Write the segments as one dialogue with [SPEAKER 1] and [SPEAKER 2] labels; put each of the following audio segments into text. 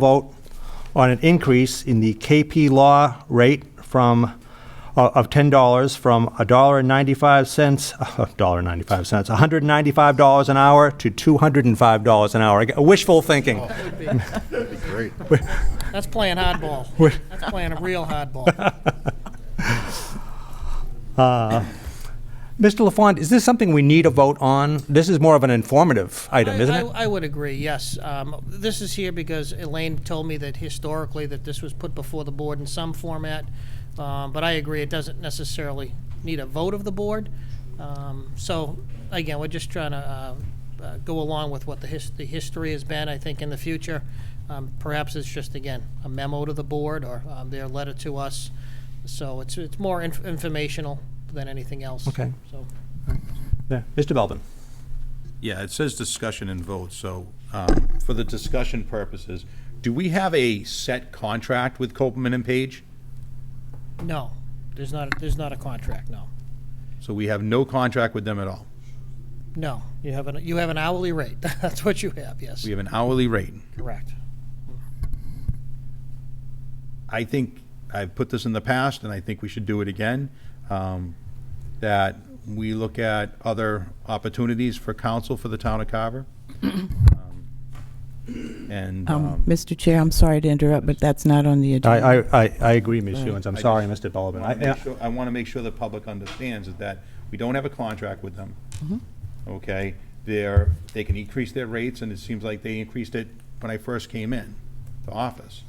[SPEAKER 1] vote on an increase in the KP Law rate from, uh, of $10 from $1.95, $1.95, $195 an hour to $205 an hour. Again, Wishful thinking.
[SPEAKER 2] Great.
[SPEAKER 3] That's playing hardball. That's playing a real hardball.
[SPEAKER 1] Mr. LaFond, is this something we need a vote on? This is more of an informative item,
[SPEAKER 3] I-
[SPEAKER 1] isn't
[SPEAKER 3] I-
[SPEAKER 1] it?
[SPEAKER 3] I would agree, yes. Um, This is here because Elaine told me that historically that this was put before the board in some format, Um, but I agree, it doesn't necessarily need a vote of the board. Um, So, again, we're just trying to uh, uh, go along with what the his- the history has been, I think, in the future. Um, Perhaps it's just, again, a memo to the board or um, their letter to us. So it's it's more inf- informational than anything else.
[SPEAKER 1] Okay.
[SPEAKER 3] So,
[SPEAKER 1] Yeah. Mr. Belvin?
[SPEAKER 2] Yeah, it says discussion and vote, so um, for the discussion purposes, do we have a set contract with Copeland and Page?
[SPEAKER 3] no, there's not, there's not a contract, no.
[SPEAKER 2] So we have no contract with them at all.
[SPEAKER 3] No, you have an you have an hourly rate. That's what you have. Yes,
[SPEAKER 2] We have an hourly rate.
[SPEAKER 3] correct.
[SPEAKER 2] I think, I've put this in the past, and I think we should do it again, um, that we look at other opportunities for council for the town of Carver. Um, And,
[SPEAKER 4] Um,
[SPEAKER 2] um,
[SPEAKER 4] Mr. Chair, I'm sorry to interrupt, but that's not on the agenda.
[SPEAKER 1] I, I, I agree, Ms. Hewens. I'm
[SPEAKER 2] I
[SPEAKER 1] sorry,
[SPEAKER 2] just
[SPEAKER 1] Mr. Belvin.
[SPEAKER 2] wanna
[SPEAKER 1] I-
[SPEAKER 2] make sure- I want to make sure the public understands is that we don't have a contract with them. Okay, they're, they can increase their rates, and it seems like they increased it when I first came in, to office.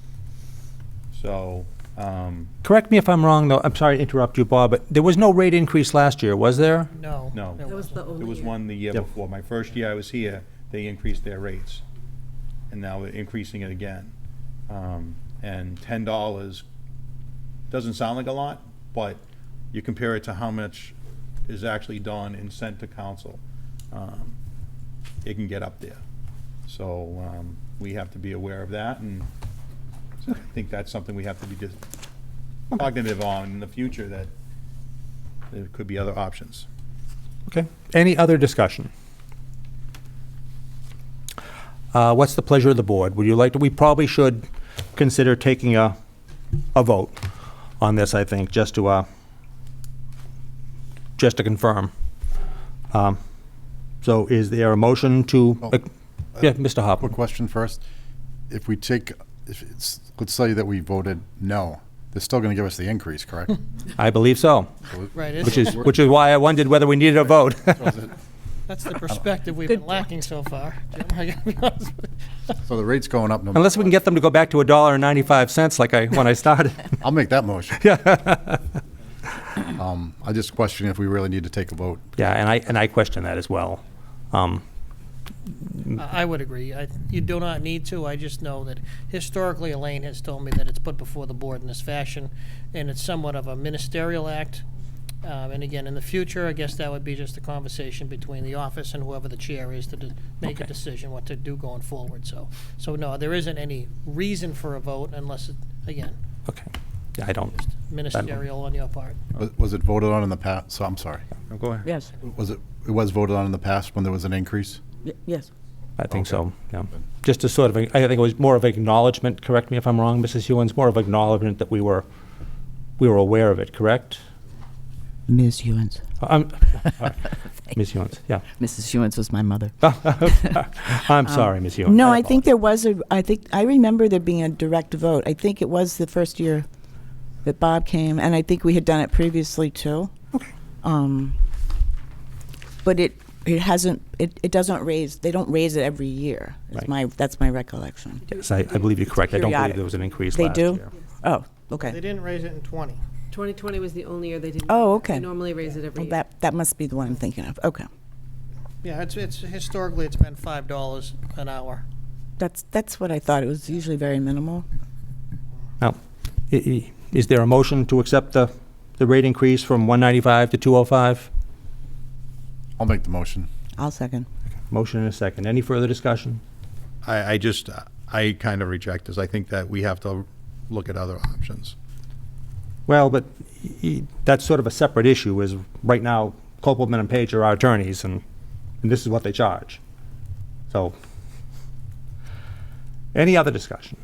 [SPEAKER 2] So, um,
[SPEAKER 1] Correct me if I'm wrong, though. I'm sorry to interrupt you, Bob, but there was no rate increase last year, was there?
[SPEAKER 3] No.
[SPEAKER 2] No.
[SPEAKER 3] there
[SPEAKER 2] That
[SPEAKER 3] wasn't.
[SPEAKER 2] there was one the year
[SPEAKER 1] Yep.
[SPEAKER 2] before, my first year I was here, they increased their rates, and now we're increasing it again. Um, And ten dollars doesn't sound like a lot, but you compare it to how much is actually done and sent to council, um, it can get up there. So um, we have to be aware of that, and I think that's something we have to be just cognitive on in the future, that there could be other options.
[SPEAKER 1] Okay. Any other discussion? Uh, What's the pleasure of the board? Would you like to, we probably should consider taking a, a vote on this, I think, just to, uh, just to confirm. Um, So is there a motion to,
[SPEAKER 5] Oh.
[SPEAKER 1] yeah, Mr.
[SPEAKER 5] Quick
[SPEAKER 1] Hopwood?
[SPEAKER 5] question first. If we take, if it's, let's say that we voted no, they're still going to give us the increase, correct?
[SPEAKER 1] I believe so,
[SPEAKER 3] Right.
[SPEAKER 1] which
[SPEAKER 3] It's,
[SPEAKER 1] is, which is why I wondered whether we needed a vote.
[SPEAKER 3] that's the perspective we've been lacking so far. Jim, I gotta be honest with you.
[SPEAKER 5] So the rate's going up. no-
[SPEAKER 1] Unless we can get them to go back to a dollar and ninety-five cents like I, when I started.
[SPEAKER 5] I'll make that motion. Yeah. I just question if we really need to take a vote.
[SPEAKER 1] Yeah, and I, and I question that as well. Um,
[SPEAKER 3] I I would agree. I, you do not need to. I just know that historically, Elaine has told me that it's put before the board in this fashion, and it's somewhat of a ministerial act. Um, and again, in the future, I guess that would be just a conversation between the office and whoever the chair is to de- make a
[SPEAKER 1] Okay.
[SPEAKER 3] decision what to do going forward. So, so no, there isn't any reason for a vote unless, it, again,
[SPEAKER 1] Okay, yeah, I don't,
[SPEAKER 3] ministerial on your part.
[SPEAKER 5] Was- Was it voted on in the past? So I'm sorry.
[SPEAKER 2] No, Go ahead.
[SPEAKER 4] Yes,
[SPEAKER 5] Was it, it was voted on in the past when there was an increase?
[SPEAKER 4] y- yes.
[SPEAKER 1] I think so, yeah. Just a sort of, a- I think it was more of acknowledgement, correct me if I'm wrong, Mrs. Hewens, more of acknowledgement that we were, we were aware of it, correct?
[SPEAKER 4] Ms. Hewens.
[SPEAKER 1] Um, all right. Ms. Hewens, yeah.
[SPEAKER 4] Mrs. Hewens was my mother.
[SPEAKER 1] I'm sorry, Ms. Hewens.
[SPEAKER 4] Um, No, I
[SPEAKER 1] apologize.
[SPEAKER 4] think there was a, I think, I remember there being a direct vote. I think it was the first year that Bob came, and I think we had done it previously, too. Um, But it, it hasn't, it, it doesn't raise, they don't raise it every year.
[SPEAKER 1] Right.
[SPEAKER 4] It's my, that's my recollection.
[SPEAKER 1] Yes, I, I believe you're correct. I don't believe
[SPEAKER 4] periodic.
[SPEAKER 1] there was an increase
[SPEAKER 4] They
[SPEAKER 1] last year.
[SPEAKER 4] do? Oh,
[SPEAKER 3] They
[SPEAKER 4] okay.
[SPEAKER 3] didn't raise it in 20.
[SPEAKER 6] 2020 was the only year they didn't.
[SPEAKER 4] Oh,
[SPEAKER 6] raise it. They
[SPEAKER 4] okay.
[SPEAKER 6] normally raise it every
[SPEAKER 4] Well,
[SPEAKER 6] year.
[SPEAKER 4] that, that must be the one I'm thinking of. Okay.
[SPEAKER 3] Yeah, it's, it's, historically, it's been $5 an hour.
[SPEAKER 4] That's, that's what I thought. It was usually very minimal.
[SPEAKER 1] Now, i- i- is there a motion to accept the, the rate increase from 195 to 205?
[SPEAKER 5] I'll make the motion.
[SPEAKER 4] I'll second.
[SPEAKER 1] Motion and a second. Any further discussion?
[SPEAKER 2] I, I just, I kind of reject this. I think that we have to look at other options.
[SPEAKER 1] Well, but y- y- that's sort of a separate issue, is right now, Copeland and Page are our attorneys, and, and this is what they charge. So, any other discussion?